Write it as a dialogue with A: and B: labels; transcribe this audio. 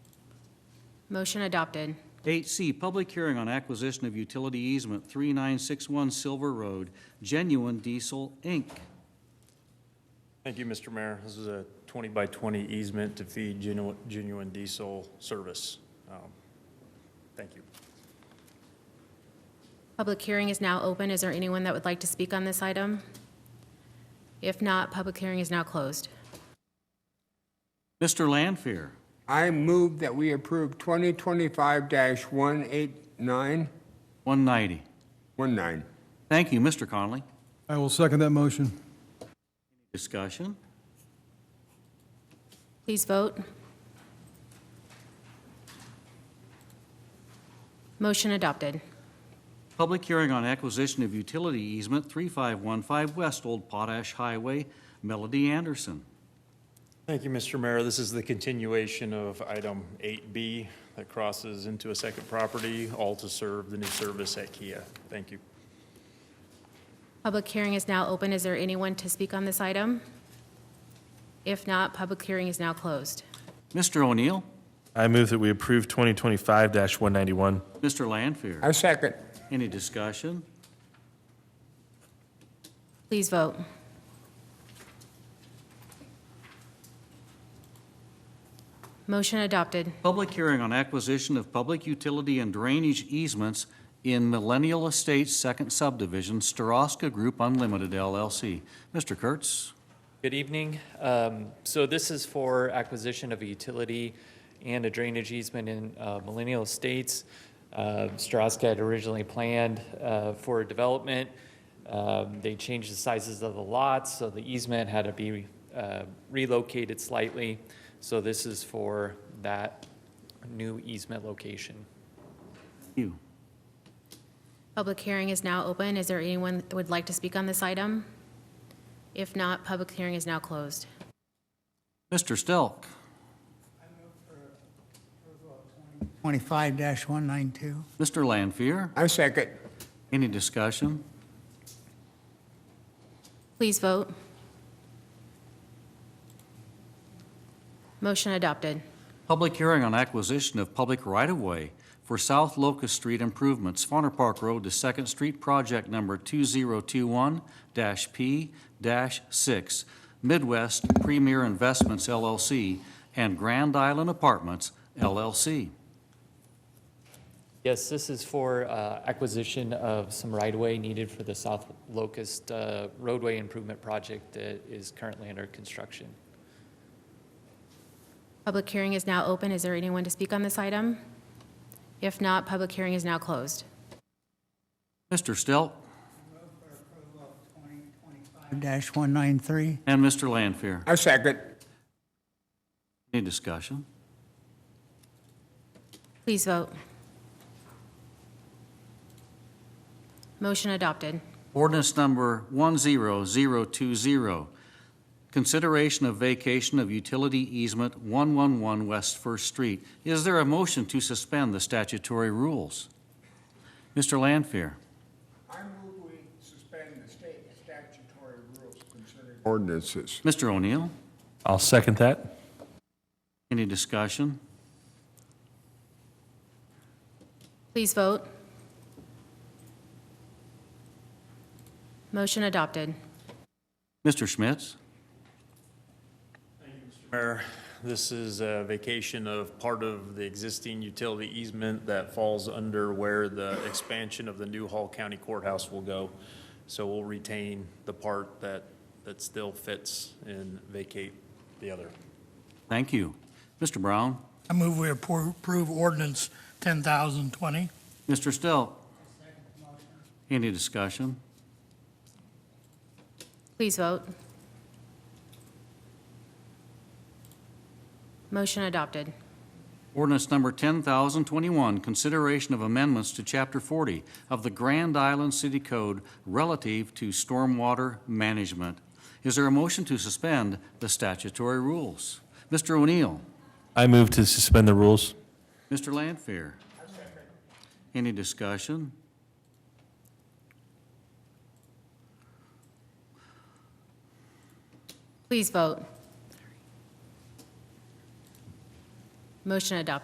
A: Motion adopted.
B: 8C, public hearing on acquisition of utility easement 3961 Silver Road, Genuine Diesel, Inc.
C: Thank you, Mr. Mayor. This is a 20 by 20 easement to feed Genu- genuine diesel service. Um, Thank you.
A: Public hearing is now open. Is there anyone that would like to speak on this item? If not, public hearing is now closed.
B: Mr. Lanfair,
D: I move that we approve 2025-18919.
B: 190. Thank you, Mr. Conley.
E: I will second that motion.
B: Discussion?
A: Please vote. Motion adopted.
B: Public hearing on acquisition of utility easement 3515 West Old Potash Highway, Melody Anderson.
C: Thank you, Mr. Mayor. This is the continuation of item 8B that crosses into a second property, all to serve the new service at Kia. Thank you.
A: Public hearing is now open. Is there anyone to speak on this item? If not, public hearing is now closed.
B: Mr. O'Neill,
F: I move that we approve 2025-191.
B: Mr. Lanfair,
D: I second.
B: any discussion?
A: Please vote. Motion adopted.
B: Public hearing on acquisition of public utility and drainage easements in Millennial Estates Second Subdivision, Staroska Group Unlimited LLC. Mr. Kurtz?
G: Good evening. Um, So this is for acquisition of a utility and a drainage easement in uh, Millennial Estates. Uh, Stroska had originally planned uh, for development. Um, They changed the sizes of the lots, so the easement had to be uh, relocated slightly. So this is for that new easement location.
B: You.
A: Public hearing is now open. Is there anyone that would like to speak on this item? If not, public hearing is now closed.
B: Mr. Stelk?
H: 25-192.
B: Mr. Lanfear?
D: I second.
B: Any discussion?
A: Please vote. Motion adopted.
B: Public hearing on acquisition of public right-of-way for South Locust Street improvements, Fawner Park Road to Second Street, project number 2021-P-6, Midwest Premier Investments LLC and Grand Island Apartments LLC.
G: Yes, this is for uh, acquisition of some right-of-way needed for the South Locust uh, roadway improvement project that is currently under construction.
A: Public hearing is now open. Is there anyone to speak on this item? If not, public hearing is now closed.
B: Mr. Stelk
H: 25-193.
B: and Mr. Lanfair,
D: I second.
B: any discussion?
A: Please vote. Motion adopted.
B: Ordinance number 10020, consideration of vacation of utility easement 111 West First Street. Is there a motion to suspend the statutory rules? Mr. Lanfair,
D: I move we suspend the state statutory rules concerning. Ordinances.
B: Mr. O'Neill,
F: I'll second that.
B: any discussion?
A: Please vote. Motion adopted.
B: Mr. Schmitz?
C: Mayor, this is a vacation of part of the existing utility easement that falls under where the expansion of the new Hall County Courthouse will go. So we'll retain the part that, that still fits and vacate the other.
B: Thank you. Mr. Brown?
H: I move we appro- approve ordinance 10,020.
B: Mr. Stelp? Any discussion?
A: Please vote. Motion adopted.
B: Ordinance number 10,021, consideration of amendments to Chapter 40 of the Grand Island City Code relative to stormwater management. Is there a motion to suspend the statutory rules? Mr. O'Neill?
F: I move to suspend the rules.
B: Mr. Lanfair? Any discussion?
A: Please vote. Motion adopted.